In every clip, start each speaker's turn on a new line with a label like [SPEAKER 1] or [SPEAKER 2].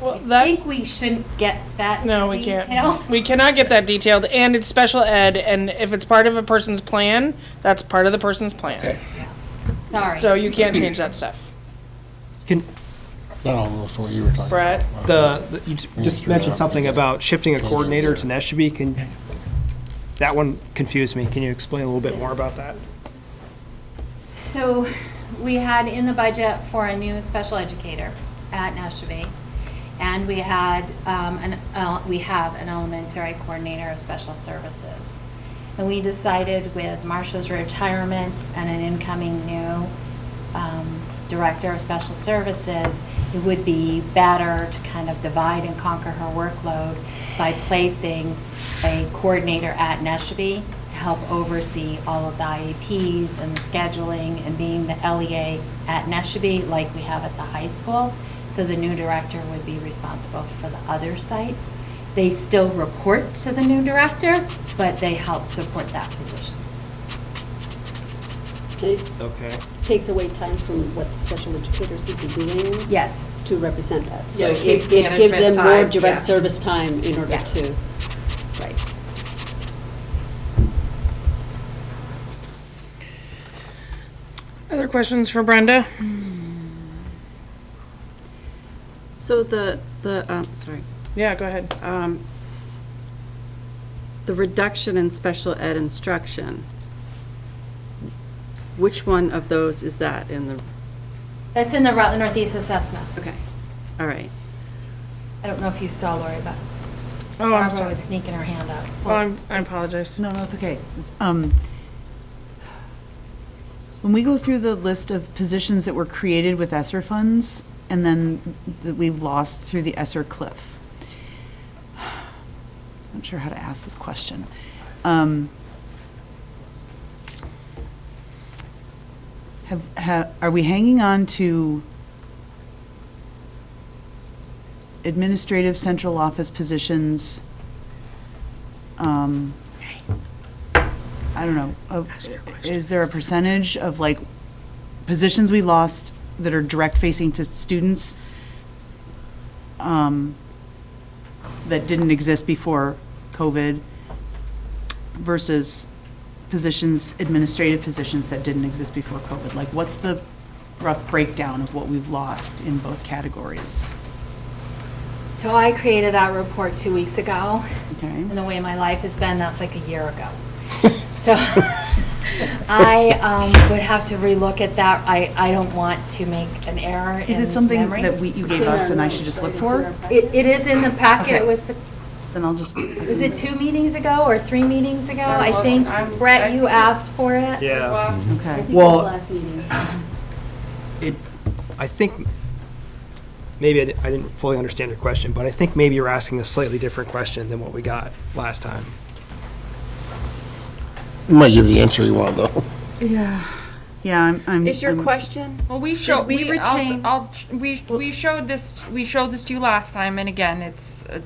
[SPEAKER 1] Well,
[SPEAKER 2] I
[SPEAKER 1] that-
[SPEAKER 2] think we shouldn't get that
[SPEAKER 1] No, we
[SPEAKER 2] detailed.
[SPEAKER 1] can't. We cannot get that detailed, and it's special ed, and if it's part of a person's plan, that's part of the person's plan.
[SPEAKER 2] Sorry.
[SPEAKER 1] So you can't change that stuff.
[SPEAKER 3] Can,
[SPEAKER 4] That all goes to what you were talking about.
[SPEAKER 1] Brett,
[SPEAKER 3] the, the- you just mentioned something about shifting a coordinator to Neshabie, can, that one confused me, can you explain a little bit more about that?
[SPEAKER 2] So we had in the budget for a new special educator at Nashville. And we had, um, an, uh, we have an elementary coordinator of special services. And we decided with Marcia's retirement and an incoming new, um, director of special services, it would be better to kind of divide and conquer her workload by placing a coordinator at Neshabie to help oversee all of the IEPs and the scheduling and being the LEA at Neshabie like we have at the high school. So the new director would be responsible for the other sites. They still report to the new director, but they help support that position.
[SPEAKER 5] And it
[SPEAKER 3] Okay.
[SPEAKER 5] takes away time from what the special educators would be doing.
[SPEAKER 2] Yes.
[SPEAKER 5] To represent us. So
[SPEAKER 6] Yeah, the
[SPEAKER 5] it-
[SPEAKER 6] case
[SPEAKER 5] It gives
[SPEAKER 6] management
[SPEAKER 5] them more
[SPEAKER 6] side,
[SPEAKER 5] direct
[SPEAKER 6] yes.
[SPEAKER 5] service time in order
[SPEAKER 2] Yes.
[SPEAKER 5] to, right.
[SPEAKER 1] other questions for Brenda?
[SPEAKER 7] So the, the, um, sorry,
[SPEAKER 1] Yeah, go ahead. Oh,
[SPEAKER 7] um, the reduction in special ed instruction, which one of those is that in the,
[SPEAKER 2] That's in the Rutland Northeast Assessment.
[SPEAKER 7] okay, all right.
[SPEAKER 2] I don't know if you saw Lori, but
[SPEAKER 1] Oh, I'm
[SPEAKER 2] Barbara
[SPEAKER 1] sorry.
[SPEAKER 2] was sneaking her hand up.
[SPEAKER 1] Oh, I'm- I apologize.
[SPEAKER 8] No, no, it's okay. It's, um, When we go through the list of positions that were created with ESSER funds and then that we lost through the ESSER cliff, I'm not sure how to ask this question. Um, Have, ha are we hanging on to administrative central office positions? um, I don't know, of- is there a percentage of like positions we lost that are direct facing to students um, that didn't exist before COVID versus positions, administrative positions that didn't exist before COVID? Like, what's the rough breakdown of what we've lost in both categories?
[SPEAKER 2] So I created that report two weeks ago,
[SPEAKER 8] Okay?
[SPEAKER 2] and the way my life has been, that's like a year ago. So I um, would have to relook at that. I, I don't want to make an error in
[SPEAKER 8] Is it something
[SPEAKER 2] memory.
[SPEAKER 8] that we, you gave us and I should just look for?
[SPEAKER 2] It, it is in the packet. It
[SPEAKER 8] Okay.
[SPEAKER 2] was,
[SPEAKER 8] Then I'll just.
[SPEAKER 2] was it two meetings ago or three meetings ago?
[SPEAKER 6] I'm
[SPEAKER 2] I
[SPEAKER 6] look-
[SPEAKER 2] think,
[SPEAKER 6] I'm-
[SPEAKER 2] Brett,
[SPEAKER 6] I-
[SPEAKER 2] you asked for it.
[SPEAKER 3] Yeah,
[SPEAKER 6] Last
[SPEAKER 8] Okay.
[SPEAKER 3] well.
[SPEAKER 5] Last meeting.
[SPEAKER 3] it, I think, maybe I di- I didn't fully understand your question, but I think maybe you're asking a slightly different question than what we got last time.
[SPEAKER 4] You might give the answer you want, though.
[SPEAKER 7] Yeah.
[SPEAKER 8] Yeah, I'm, I'm.
[SPEAKER 7] Is your
[SPEAKER 8] I'm-
[SPEAKER 7] question,
[SPEAKER 9] Well, we showed,
[SPEAKER 7] we
[SPEAKER 9] we, I'll,
[SPEAKER 7] retain-
[SPEAKER 9] I'll, we, we showed this, we showed this to you last time, and again, it's, a-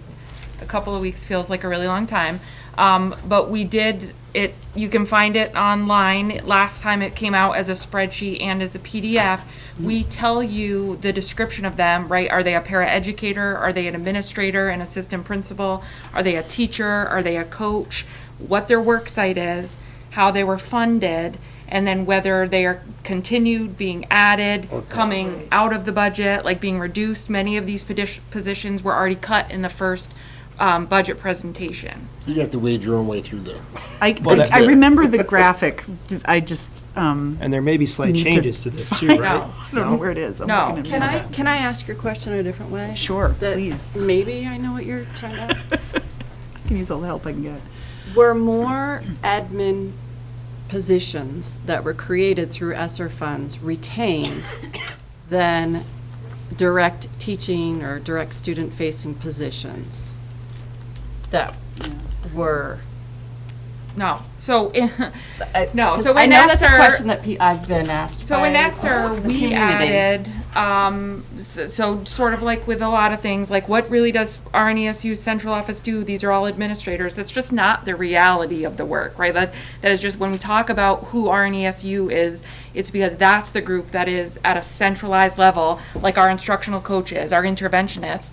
[SPEAKER 9] a couple of weeks feels like a really long time. Um, but we did, it, you can find it online. Last time it came out as a spreadsheet and as a PDF. We tell you the description of them, right? Are they a paraeducator? Are they an administrator, an assistant principal? Are they a teacher? Are they a coach? What their work site is, how they were funded, and then whether they are continued, being added, coming out of the budget, like being reduced. Many of these pedi- positions were already cut in the first um, budget presentation.
[SPEAKER 4] You have to wade your own way through there.
[SPEAKER 8] I,
[SPEAKER 3] Well,
[SPEAKER 8] I
[SPEAKER 3] that's
[SPEAKER 8] I
[SPEAKER 4] it.
[SPEAKER 8] remember the graphic, I just, um,
[SPEAKER 3] And there may be slight
[SPEAKER 8] Need to
[SPEAKER 3] changes to this too, right?
[SPEAKER 9] No.
[SPEAKER 8] I don't know where it is. I'm
[SPEAKER 9] No.
[SPEAKER 8] looking at
[SPEAKER 7] can
[SPEAKER 8] it.
[SPEAKER 7] I, can I ask your question a different way?
[SPEAKER 8] Sure,
[SPEAKER 7] That
[SPEAKER 8] please.
[SPEAKER 7] Maybe I know what you're trying to ask.
[SPEAKER 8] I can use all the help I can get.
[SPEAKER 7] Were more admin positions that were created through ESSER funds retained than direct teaching or direct student-facing positions that were?
[SPEAKER 9] No, so, in- no,
[SPEAKER 6] 'Cause
[SPEAKER 9] so
[SPEAKER 6] Uh, I
[SPEAKER 9] in
[SPEAKER 6] know that's a
[SPEAKER 9] ESER,
[SPEAKER 6] question that pe- I've been asked
[SPEAKER 9] so in
[SPEAKER 6] by
[SPEAKER 9] ESER,
[SPEAKER 6] the
[SPEAKER 9] we
[SPEAKER 6] community.
[SPEAKER 9] added, um, s- so sort of like with a lot of things, like what really does RNESU's central office do? These are all administrators. That's just not the reality of the work, right? That, that is just, when we talk about who RNESU is, it's because that's the group that is at a centralized level, like our instructional coaches, our interventionists.